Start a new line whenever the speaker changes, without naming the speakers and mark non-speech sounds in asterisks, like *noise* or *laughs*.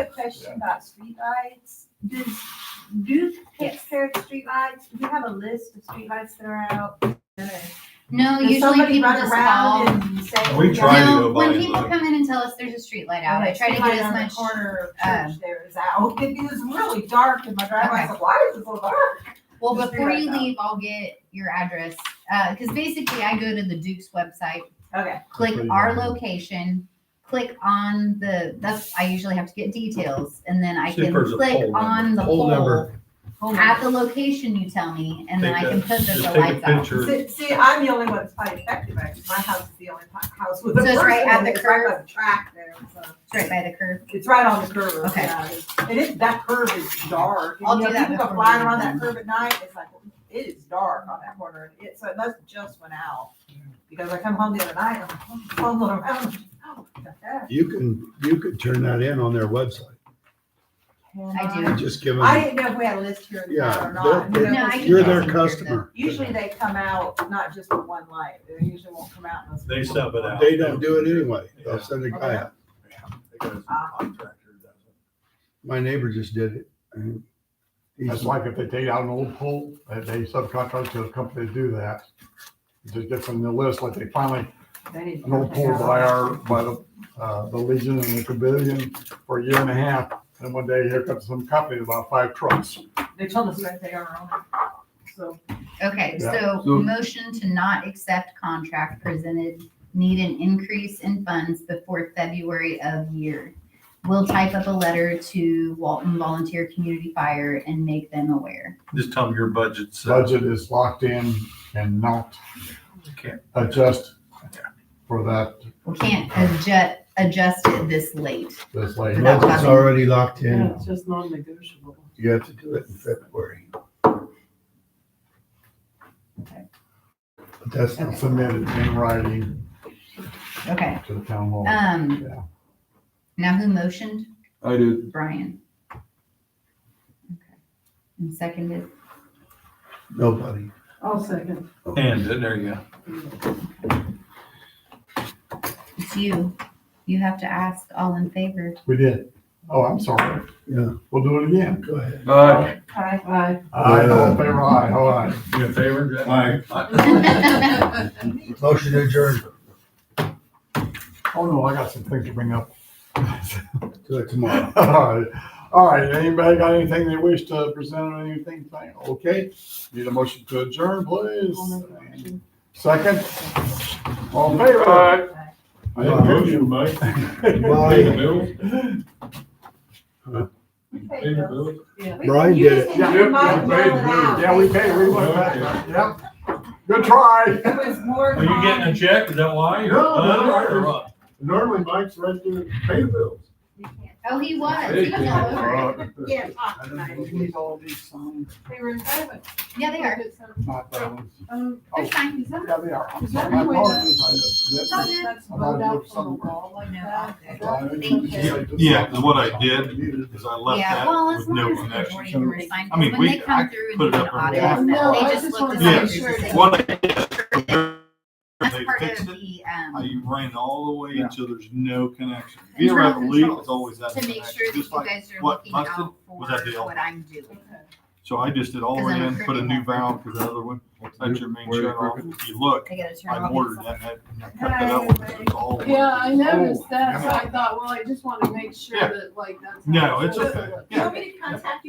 a question about streetlights. Does Duke take care of the streetlights? Do you have a list of streetlights that are out? Does
No, usually
somebody
people
run
just
around
call.
and say?
We try to
No,
go by
when
and
people
look.
come in and tell us there's a street light out, I
Okay,
try to
streetlight
get as
on the
much.
Corner of
um,
church there is out. *laughs* It is really dark in my driveway. I said, why is it so dark?
Well,
Just
before
figure
you
it out.
leave, I'll get your address, because basically I go to the Duke's website,
Okay,
click
Pretty
our
good.
location, click on the, that's, I usually have to get details, and then I
See if
can
there's a
click
poll
on
number.
the
Poll
pole
number.
hold on.
at the location you tell me, and then I
Take
can
a-
put the
just
the
take a
lights out.
picture.
See, see, I'm the only one that's probably affected by it. My house is the only po- house with a
So
person.
it's right at
and
the
it's right
curb?
by the Track there, so.
Straight by the curb.
It's right on the curve.
Okay.
yeah. And it, that curve is dark. And,
I'll
you
do
know,
that
People go
before
flying
we
around
leave
that
then.
curve at night, it's like, it is dark on that corner, and it, so it must just went out. Because I come home the other night, I'm like, "Oh, it's all around. Oh, what the heck?"
You can, you could turn that in on their website.
I do.
You just give
um, I
them,
didn't know if we had a list here in
Yeah,
town or not.
they're-
You know,
No, I
it's-
can-
you're their customer.
Usually they come out, not just with one light, they usually won't come out unless.
They sub it out.
They don't do it anyway. They'll send a guy out. My neighbor just did it. and he's-
That's like if they take out an old pole, that they subcontract to a company to do that. Just get from the list, like they finally,
They need to
an old
take
pole
out
by
all-
our, by the, uh, the Legion and the Pavilion for a year and a half. And one day here comes some company with about five trucks.
They told us that they are on. it. So
Okay,
Yeah.
so
So-
motion to not accept contract presented, need an increase in funds before February of year. We'll type up a letter to Walton Volunteer Community Fire and make them aware.
Just tell them your budget's. uh,
Budget is locked in and not
Can't.
adjust for that,
We can't adjust, adjust it this late.
this late.
Without
It's
budget.
already locked in.
it's just non-negotiable.
You have to do it in February. But That's not
Submitted in writing
Okay,
to the town hall.
um,
Oh, Yeah.
now who motioned?
I did.
Brian. Okay, And seconded.
nobody.
I'll second.
And, uh, there you go.
It's you. You have to ask all in favor. *laughs*
We did. Oh, I'm sorry.
Yeah.
We'll do it again.
Go ahead.
Aye.
I
Aye.
Aye, all in favor, aye, all aye.
You in favor? Jack?
Aye.
Oh,
Motion adjourned.
Oh, no, I got some things to bring up. *laughs*
Do it tomorrow.
All right. All right, anybody got anything they wish to present or anything? Okay, need a motion to adjourn, please. Second? All in favor?
Aye.
I didn't hear you.
Mike.
*laughs*
Aye.
Pay bills.
Yeah.
We-
Brian
you
did
just
it.
need to
Yeah,
remind
yeah,
Roland out.
Yeah, we paid, we went back, yep. Good try. *laughs*
It was more.
Are you getting a check? Is that why?
No, no, no.
Or what?
Normally Mike's right there, pay bills.
Oh, he was. He was all over it.
Yeah, talk tonight.
Need all these signs.
They were in front of it.
Yeah, they are.
Not that one.
Um,
Oh,
They're fine.
Yeah, they are. I'm
Is that
sorry. I
the way that-
apologize. I-
that's
I thought
rolled
it
out
looked
from the
somewhere.
wall like
No,
that.
okay.
Yeah,
Yeah, 'cause what I did Cause I left
Yeah,
that
well, as
with
long
no
as the majority of
connection.
them are signed,
I mean,
because when
we- I
they come through and
put
do
it
an
up on
audit,
the-
on
No,
that,
I
they
just
just look
wanted
to
to see
make
if
sure
there's a
that-
What I did,
signature. That's
They
part
fixed
of
it.
the,
I
um,
ran all the way
Yeah.
until there's no connection. If you ever have a leak, it's always that
to make sure
connection,
that you
just like,
guys are
what
looking
busted?
out for
Was that the
what I'm doing.
so I just did all the way
'Cause I'm
in, put a new
crooked.
valve, cause the other one, that's your main
Where-
shut off. If you look,
I gotta turn
I
off.
ordered
these-
that, that- and I cut that out, it was all.
Yeah, I noticed that, so
Oh, yeah.
I thought, well, I just want to make sure
Yeah.
that like that's. how
No, it's
supposed to
okay.
look.
You want me to contact you